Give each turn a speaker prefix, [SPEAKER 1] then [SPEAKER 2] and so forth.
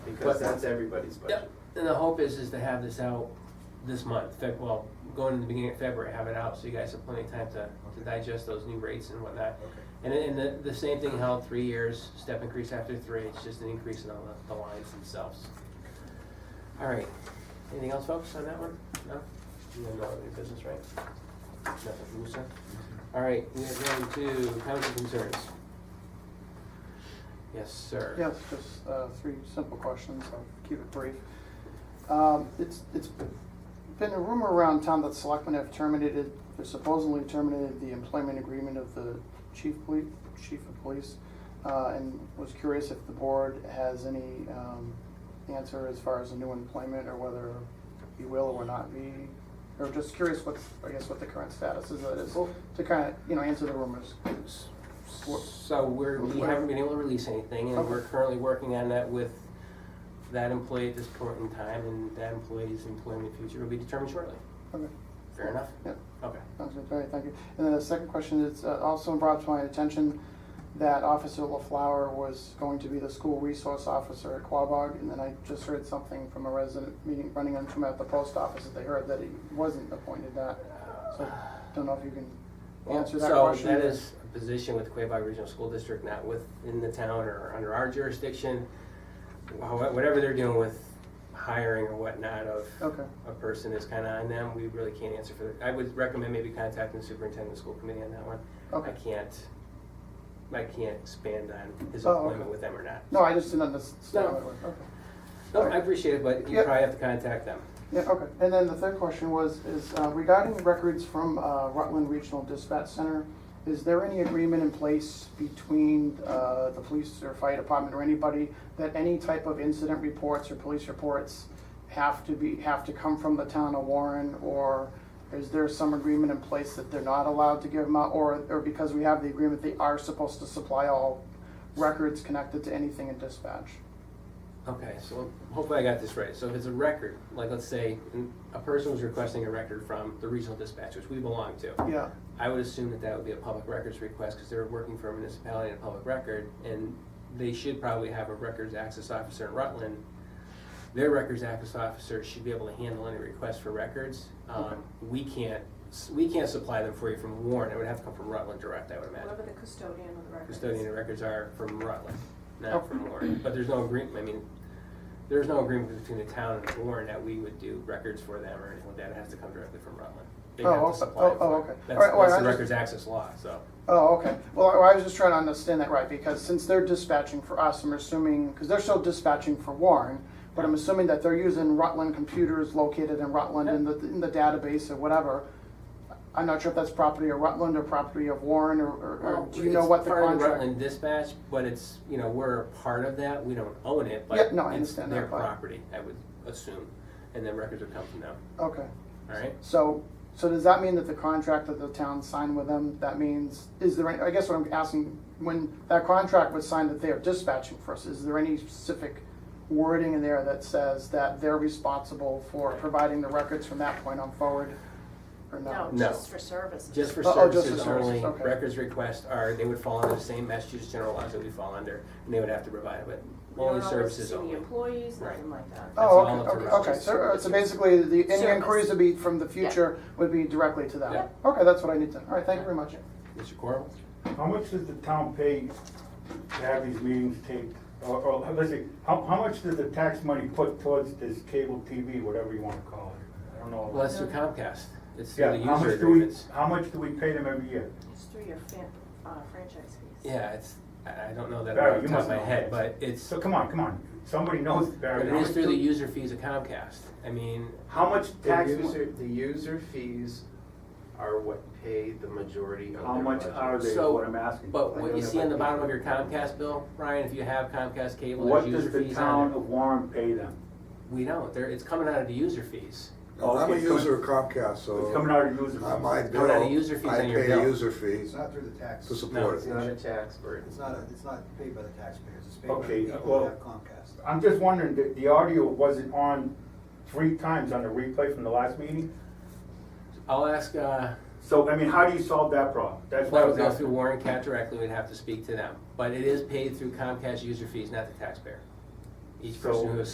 [SPEAKER 1] because
[SPEAKER 2] But-
[SPEAKER 1] that's everybody's budget.
[SPEAKER 2] And the hope is, is to have this out this month, Feb, well, going in the beginning of February, have it out, so you guys have plenty of time to, to digest those new rates and whatnot.
[SPEAKER 3] Okay.
[SPEAKER 2] And, and the, the same thing held three years, step increase after three, it's just an increase in all the, the lines themselves. All right, anything else, folks, on that one? No? You have no other business, right? Nothing from you, sir? All right, we are going to comments and concerns. Yes, sir.
[SPEAKER 4] Yes, just uh, three simple questions, I'll keep it brief. Um, It's, it's been a rumor around town that selectmen have terminated, or supposedly terminated the employment agreement of the chief police, chief of police, uh, and was curious if the board has any um, answer as far as a new employment, or whether he will or will not be, or just curious what's, I guess, what the current status is, of it is, to kind of, you know, answer the rumors.
[SPEAKER 2] So we're, we haven't been able to release anything, and we're currently working on that with that employee at this point in time, and that employee's employment in the future will be determined shortly.
[SPEAKER 4] Okay.
[SPEAKER 2] Fair enough?
[SPEAKER 4] Yeah.
[SPEAKER 2] Okay.
[SPEAKER 4] Sounds good, very, thank you. And then the second question is, uh, also brought to my attention that Officer LaFleur was going to be the school resource officer at Quabog, and then I just heard something from a resident meeting, running into him at the post office, that they heard that he wasn't appointed that. So, don't know if you can answer that question.
[SPEAKER 2] So that is a position with Quabog Regional School District, not within the town or under our jurisdiction. Wha- Whatever they're doing with hiring or whatnot of
[SPEAKER 4] Okay,
[SPEAKER 2] a person is kind of on them, we really can't answer for that. I would recommend maybe contacting the superintendent of the school committee on that one. I
[SPEAKER 4] okay.
[SPEAKER 2] can't, I can't expand on his
[SPEAKER 4] Oh, okay.
[SPEAKER 2] employment with them or not.
[SPEAKER 4] No, I just didn't understand.
[SPEAKER 2] No.
[SPEAKER 4] what it was. Okay.
[SPEAKER 2] No, I appreciate it, but you
[SPEAKER 4] Yeah.
[SPEAKER 2] probably have to contact them.
[SPEAKER 4] Yeah, okay. And then the third question was, is uh, regarding records from uh, Rutland Regional Dispatch Center, is there any agreement in place between uh, the police or fire department or anybody that any type of incident reports or police reports have to be, have to come from the town of Warren? Or is there some agreement in place that they're not allowed to give them out? Or, or because we have the agreement, they are supposed to supply all records connected to anything in dispatch?
[SPEAKER 2] Okay, so hopefully I got this right. So if it's a record, like let's say mm, a person was requesting a record from the regional dispatch, which we belong to,
[SPEAKER 4] Yeah,
[SPEAKER 2] I would assume that that would be a public records request because they're working for a municipality and a public record, and they should probably have a records access officer in Rutland. Their records access officer should be able to handle any request for records. Um,
[SPEAKER 4] Okay.
[SPEAKER 2] We can't, we can't supply them for you from Warren. It would have to come from Rutland direct, I would imagine.
[SPEAKER 5] Whatever the custodian of the records.
[SPEAKER 2] custodian of records are from Rutland, not
[SPEAKER 4] Okay.
[SPEAKER 2] from Warren. But there's no agreement, I mean, there's no agreement between the town and Warren that we would do records for them or anything like that. It has to come directly from Rutland. They
[SPEAKER 4] Oh,
[SPEAKER 2] have to
[SPEAKER 4] okay.
[SPEAKER 2] supply it
[SPEAKER 4] Oh, oh,
[SPEAKER 2] for
[SPEAKER 4] okay.
[SPEAKER 2] it.
[SPEAKER 4] All
[SPEAKER 2] That's,
[SPEAKER 4] right, well,
[SPEAKER 2] that's
[SPEAKER 4] I
[SPEAKER 2] the
[SPEAKER 4] just-
[SPEAKER 2] records access law, so.
[SPEAKER 4] Oh, okay. Well, I I was just trying to understand that right, because since they're dispatching for us, I'm assuming, because they're still dispatching for Warren, but I'm assuming that they're using Rutland computers located in Rutland in the, in the database or whatever. I'm not sure if that's property of Rutland or property of Warren, or, or- or do you know
[SPEAKER 2] It's
[SPEAKER 4] what the
[SPEAKER 2] part of
[SPEAKER 4] contract?
[SPEAKER 2] Rutland Dispatch, but it's, you know, we're a part of that. We don't own it, but
[SPEAKER 4] Yeah, no, I
[SPEAKER 2] it's
[SPEAKER 4] understand that,
[SPEAKER 2] their
[SPEAKER 4] but-
[SPEAKER 2] property, I would assume. And the records would come from them,
[SPEAKER 4] Okay,
[SPEAKER 2] all right?
[SPEAKER 4] so, so does that mean that the contract that the town signed with them, that means, is there, any- I guess what I'm asking, when that contract was signed that they are dispatching for us, is there any specific wording in there that says that they're responsible for providing the records from that point on forward, or
[SPEAKER 5] No,
[SPEAKER 4] no?
[SPEAKER 2] No.
[SPEAKER 5] just for services.
[SPEAKER 2] Just for
[SPEAKER 4] Oh, oh, just for
[SPEAKER 2] services
[SPEAKER 4] services,
[SPEAKER 2] only,
[SPEAKER 4] okay.
[SPEAKER 2] records requests are, they would fall under the same Massachusetts general laws that we fall under, and they would have to provide it, but
[SPEAKER 5] We don't
[SPEAKER 2] only
[SPEAKER 5] oversee
[SPEAKER 2] services
[SPEAKER 5] the
[SPEAKER 2] only.
[SPEAKER 5] employees,
[SPEAKER 2] Right.
[SPEAKER 5] nothing like
[SPEAKER 2] That's
[SPEAKER 5] that.
[SPEAKER 4] Oh,
[SPEAKER 2] all
[SPEAKER 4] okay,
[SPEAKER 2] up to
[SPEAKER 4] okay,
[SPEAKER 2] Rutland.
[SPEAKER 4] okay, so, so basically, the, any
[SPEAKER 5] Service.
[SPEAKER 4] inquiries would be from the future would be directly to them?
[SPEAKER 2] Yeah.
[SPEAKER 4] Okay, that's what I need to, all right, thank you very much.
[SPEAKER 2] Mr. Corbel?
[SPEAKER 3] How much does the town pay to have these meetings taped? Or, or, let's see, how, how much does the tax money put towards this cable TV, whatever you wanna call it? I don't know.
[SPEAKER 2] Well, that's through Comcast, it's
[SPEAKER 3] Yeah,
[SPEAKER 2] through the user
[SPEAKER 3] how much do we-
[SPEAKER 2] agreements.
[SPEAKER 3] How much do we pay them every year?
[SPEAKER 5] It's through your fan, uh, franchise fees.
[SPEAKER 2] Yeah, it's, I I don't know that
[SPEAKER 3] Barry,
[SPEAKER 2] off the
[SPEAKER 3] you
[SPEAKER 2] top of
[SPEAKER 3] must
[SPEAKER 2] my
[SPEAKER 3] know.
[SPEAKER 2] head, but it's,
[SPEAKER 3] So come on, come on, somebody knows,
[SPEAKER 2] but
[SPEAKER 3] Barry.
[SPEAKER 2] it
[SPEAKER 3] how
[SPEAKER 2] is
[SPEAKER 3] much
[SPEAKER 2] through the
[SPEAKER 3] do-
[SPEAKER 2] user fees of Comcast, I mean,
[SPEAKER 3] How much
[SPEAKER 1] The
[SPEAKER 3] tax,
[SPEAKER 1] user, the user fees are what pay the majority of
[SPEAKER 3] how
[SPEAKER 1] their
[SPEAKER 3] much
[SPEAKER 1] budget.
[SPEAKER 3] are they, is
[SPEAKER 2] So,
[SPEAKER 3] what I'm asking?
[SPEAKER 2] but
[SPEAKER 1] I
[SPEAKER 2] what
[SPEAKER 1] don't
[SPEAKER 2] you
[SPEAKER 1] know
[SPEAKER 2] see
[SPEAKER 1] if
[SPEAKER 2] on
[SPEAKER 1] I
[SPEAKER 2] the
[SPEAKER 1] can-
[SPEAKER 2] bottom of your Comcast bill, Brian, if you have Comcast cable,
[SPEAKER 3] What
[SPEAKER 2] there's
[SPEAKER 3] does
[SPEAKER 2] user
[SPEAKER 3] the
[SPEAKER 2] fees
[SPEAKER 3] town
[SPEAKER 2] on it.
[SPEAKER 3] of Warren pay them?
[SPEAKER 2] We don't, there, it's coming out of the user fees,
[SPEAKER 6] No, I'm a
[SPEAKER 3] Okay, so
[SPEAKER 6] user of Comcast,
[SPEAKER 3] It's coming
[SPEAKER 6] so
[SPEAKER 3] out of user fees.
[SPEAKER 6] uh, my
[SPEAKER 2] How about
[SPEAKER 6] bill,
[SPEAKER 2] user fees
[SPEAKER 6] I
[SPEAKER 2] on your
[SPEAKER 6] pay a
[SPEAKER 2] bill?
[SPEAKER 6] user fee
[SPEAKER 7] It's not through the tax,
[SPEAKER 6] to
[SPEAKER 7] it's
[SPEAKER 6] support
[SPEAKER 1] It's
[SPEAKER 6] it.
[SPEAKER 1] not a tax burden.
[SPEAKER 7] not, a- it's not paid by the taxpayers, it's paid by
[SPEAKER 3] Okay,
[SPEAKER 7] the people
[SPEAKER 3] well-
[SPEAKER 7] who have Comcast.
[SPEAKER 3] I'm just wondering, the, the audio wasn't on three times on the replay from the last meeting?
[SPEAKER 2] I'll ask, uh,
[SPEAKER 3] So, I mean, how do you solve that problem? That's what I
[SPEAKER 2] That would
[SPEAKER 3] was
[SPEAKER 2] go through
[SPEAKER 3] asking.
[SPEAKER 2] Warren Cat directly, we'd have to speak to them, but it is paid through Comcast user fees, not the taxpayer. Each
[SPEAKER 3] So-
[SPEAKER 2] person who is